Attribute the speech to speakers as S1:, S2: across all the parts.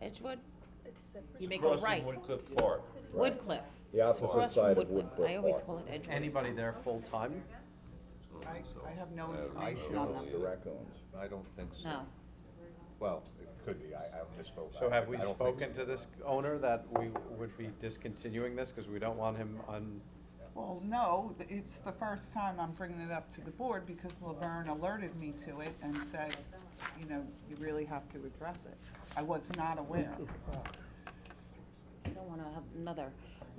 S1: Edgewood,
S2: It's
S1: you make a right,
S2: Crossing Woodcliff Park.
S3: Right.
S1: Woodcliff.
S3: The
S1: It's
S3: opposite
S1: across from
S3: side of Woodcliff
S1: I always
S3: Park.
S1: call it
S4: Is
S1: Edgewood.
S4: Anybody there full-time?
S5: I, I have no
S6: Uh,
S5: information
S6: I
S5: on
S6: don't
S5: them.
S3: The raccoons.
S6: I don't think so.
S1: No,
S6: Well, it could be, I, I misspoke.
S4: So
S6: I-
S4: have we
S6: I don't think
S4: spoken
S6: so.
S4: to this owner that we would be discontinuing this because we don't want him on?
S5: Well, no, th- it's the first time I'm bringing it up to the board because Laverne alerted me to it and said, you know, you really have to address it. I was not aware.
S1: you don't wanna have another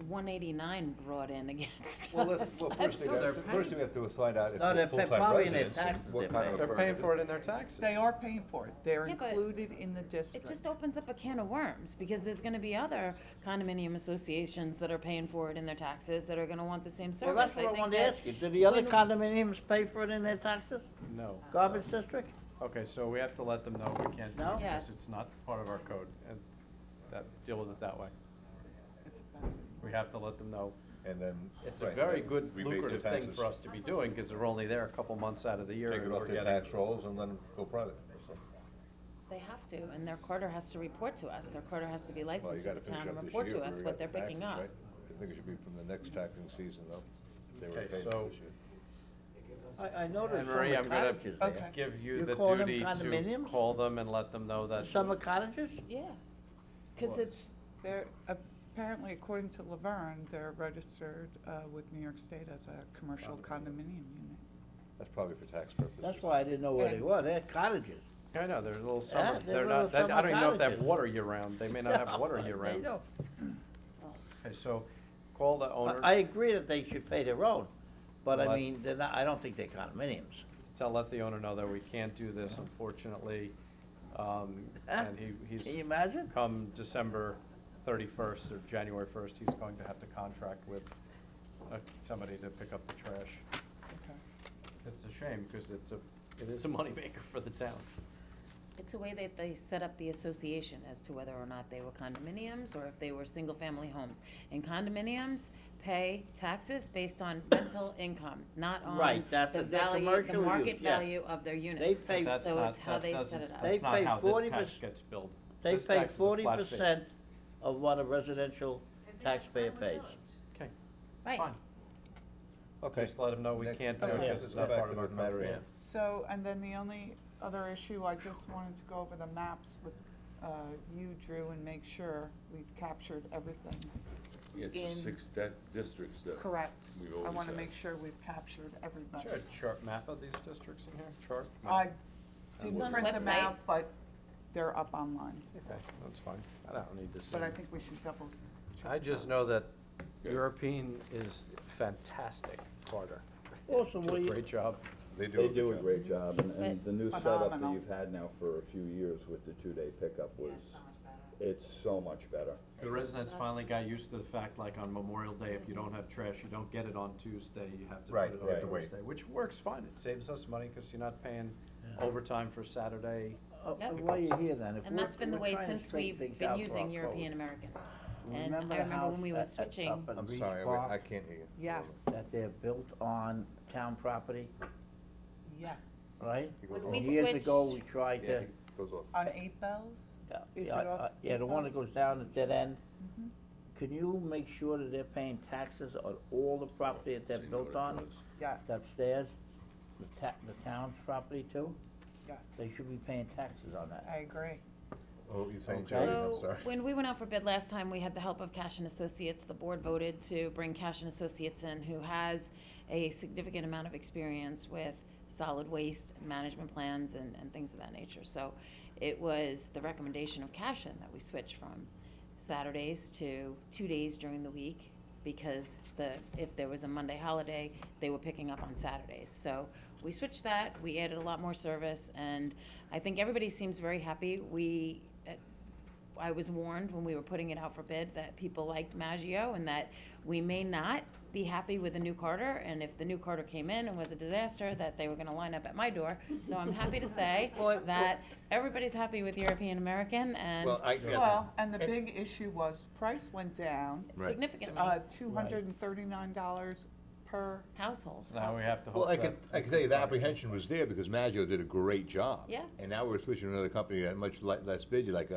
S1: one eighty-nine brought in against
S6: Well,
S1: us.
S6: let's, well, first thing, we have- first thing we have to find out if
S7: No,
S6: they're
S7: they're pa-
S6: full-time
S7: probably in their
S6: residents, and
S7: taxes
S6: what
S7: they're
S6: kind of.
S4: They're paying for it in their taxes.
S5: They are paying for it. They're
S1: Yeah, but
S5: included in the district.
S1: It just opens up a can of worms, because there's gonna be other condominium associations that are paying for it in their taxes that are gonna want the same service.
S7: Well, that's what I
S1: think
S7: wanted to
S1: that
S7: ask you, do the other
S1: when-
S7: condominiums pay for it in their taxes?
S4: No.
S7: Garbage district?
S4: Okay, so we have to let them know we can't do
S7: No?
S4: it because
S1: Yes.
S4: it's not part of our code and that, deal with it that way.
S5: If that's-
S4: We have to let them know.
S6: And then.
S4: It's a
S6: right,
S4: very
S6: then
S4: good
S6: rebate their
S4: lucrative thing
S6: taxes,
S4: for us to be doing because they're only there a couple months out of the year.
S6: Take it
S4: and
S6: off
S4: we're
S6: their
S4: getting-
S6: tax rolls and let them go private. or something.
S1: They have to, and their quarter has to report to us, their quarter has to be
S6: Well, you
S1: licensed
S6: gotta
S1: with the
S6: finish
S1: town
S6: up
S1: and
S6: this
S1: report
S6: year
S1: to
S6: if
S1: us
S6: we
S1: what
S6: got
S1: they're
S6: the
S1: picking
S6: taxes,
S1: up.
S6: right? I think it should be from the next taxing season though. if They were
S4: Okay,
S6: paying
S4: so-
S6: this year.
S7: I, I noticed
S4: And
S7: some of
S4: Marie,
S7: the
S4: I'm gonna
S7: cottages
S5: Okay.
S7: there.
S4: give you
S7: You
S4: the
S7: call them
S4: duty to
S7: condominiums?
S4: call them and let them know that.
S7: Uh, Some are cottages?
S1: Yeah, cause
S6: Well,
S1: it's,
S5: They're, apparently, according to Laverne, they're registered uh, with New York State as a commercial condominium unit.
S6: That's probably for tax purposes.
S7: That's why I didn't know where they
S5: And-
S7: were, they're cottages.
S4: I know, they're little summer,
S7: they're
S4: they're
S7: little
S4: not, that- I
S7: summer
S4: don't even know if they have
S7: cottages.
S4: water year-round, they may not have water
S7: They
S4: year-round.
S7: don't.
S4: Okay, so call the
S7: I
S4: owner,
S7: I agree that they should pay their own, but I
S4: Well, I-
S7: mean, they're not, I don't think they're condominiums.
S4: tell, let the owner know that we can't do this unfortunately. Um, and he,
S7: Can you
S4: he's,
S7: imagine?
S4: come December thirty-first or January first, he's going to have to contract with uh, somebody to pick up the trash.
S5: Okay.
S4: It's a shame, because it's a, it is a moneymaker for the town.
S1: it's a way that they set up the association as to whether or not they were condominiums or if they were single-family homes. And condominiums pay taxes based on rental income, not on
S7: Right, that's
S1: the
S7: a- that's a
S1: value, the
S7: commercial use,
S1: market
S7: yeah.
S1: value of their units.
S7: pay-
S4: That's
S1: So
S4: not-
S1: it's how
S4: that
S1: they set
S4: doesn't-
S1: it up.
S7: They
S4: That's not
S7: pay
S4: how this
S7: 40%
S4: tax gets billed.
S7: They
S4: This
S7: pay
S4: tax is a
S7: forty
S4: flat fee.
S7: percent of what a residential taxpayer pays.
S4: Okay,
S1: Right.
S4: fine.
S6: Okay.
S4: Just let them know we
S6: Next-
S4: can't do it
S5: Okay.
S4: 'cause
S6: Let's
S4: it's
S6: go
S4: not
S6: back
S4: part
S6: to
S4: of our
S6: the matter
S4: code.
S6: at hand.
S5: So, and then the only other issue, I just wanted to go over the maps with uh, you, Drew, and make sure we've captured everything.
S8: It's the
S5: in-
S8: six di- districts that.
S5: Correct.
S8: we
S5: I
S8: always
S5: want to
S8: have.
S5: make sure we've captured
S4: Is
S5: everybody.
S4: there a chart map of these districts in here? Chart?
S5: I
S1: It's
S5: didn't
S1: on the
S5: print them
S1: website.
S5: out, but they're up online,
S4: Okay, that's fine. I don't need to see.
S5: but I
S4: them.
S5: think we should double check.
S4: I just
S5: those.
S4: know that European is fantastic, Carter.
S7: Also,
S4: Do
S7: what
S4: a
S7: do you-
S4: great job.
S6: They do.
S3: They
S6: a good
S3: do a
S6: job.
S3: great job, and, and the new setup that
S5: Phenomenal.
S3: you've had now for a few years with the two-day pickup was, it's so much better.
S4: The residents finally got used to the fact, like on Memorial Day, if you don't have trash, you don't get it on Tuesday, you have to
S6: Right,
S4: put it
S6: you have
S4: on
S6: to wait.
S4: Thursday, which works fine. It saves us money because you're not paying overtime for Saturday.
S7: Uh,
S1: Yep.
S7: While you're here then, if
S1: And
S7: we're-
S1: that's been the
S7: we're
S1: way
S7: trying to
S1: since
S7: straighten
S1: we've
S7: things
S1: been
S7: out for our
S1: using
S7: code.
S1: European American. And I
S7: the
S1: remember
S7: house
S1: when we
S7: that-
S1: were
S7: that-
S1: switching,
S7: up in
S6: I'm
S7: Beach
S6: sorry,
S7: Park,
S6: I I can't hear you.
S5: Yes,
S7: That they're built on town property,
S5: yes.
S7: right?
S6: He goes
S1: When
S6: off.
S1: we
S7: Years ago, we
S1: switched-
S7: tried
S6: Yeah,
S7: to,
S6: he goes off.
S5: On Eight Bells?
S7: yeah,
S5: Is
S7: yeah,
S5: it off
S7: uh, yeah, the one that
S5: Peoples?
S7: goes down the dead end.
S1: Mm-hmm.
S5: Mhm.
S7: Can you make sure that they're paying taxes on all the property that they're
S8: Say no
S7: built
S8: to
S7: on,
S8: drugs.
S5: Yes,
S7: upstairs? The ta, the town's property too? They
S5: yes.
S7: should be paying taxes on that.
S5: I agree.
S6: Oh, you're saying
S7: Okay.
S6: Jackie, I'm
S1: so
S6: sorry.
S1: when we went out for bid last time, we had the help of Cash and Associates. The board voted to bring Cash and Associates in, who has a significant amount of experience with solid waste management plans and, and things of that nature. So it was the recommendation of Cash and that we switched from Saturdays to two days during the week because the, if there was a Monday holiday, they were picking up on Saturdays. So we switched that, we added a lot more service, and I think everybody seems very happy. We, uh, I was warned when we were putting it out for bid that people liked Maggio and that we may not be happy with the new Carter. And if the new Carter came in and was a disaster, that they were gonna line up at my door. So I'm happy to say
S7: Well,
S1: that everybody's happy with European American and
S6: Well, I guess.
S5: Well, and the big issue was price went down,
S6: Right.
S1: significantly
S5: uh, two hundred and thirty-nine dollars per
S1: household.
S4: So now we have to hope
S6: Well, I
S4: that-
S6: can, I can tell you the apprehension was there because Maggio did a great job.
S1: Yeah.
S6: And now we're switching to another company at much le- less bid, like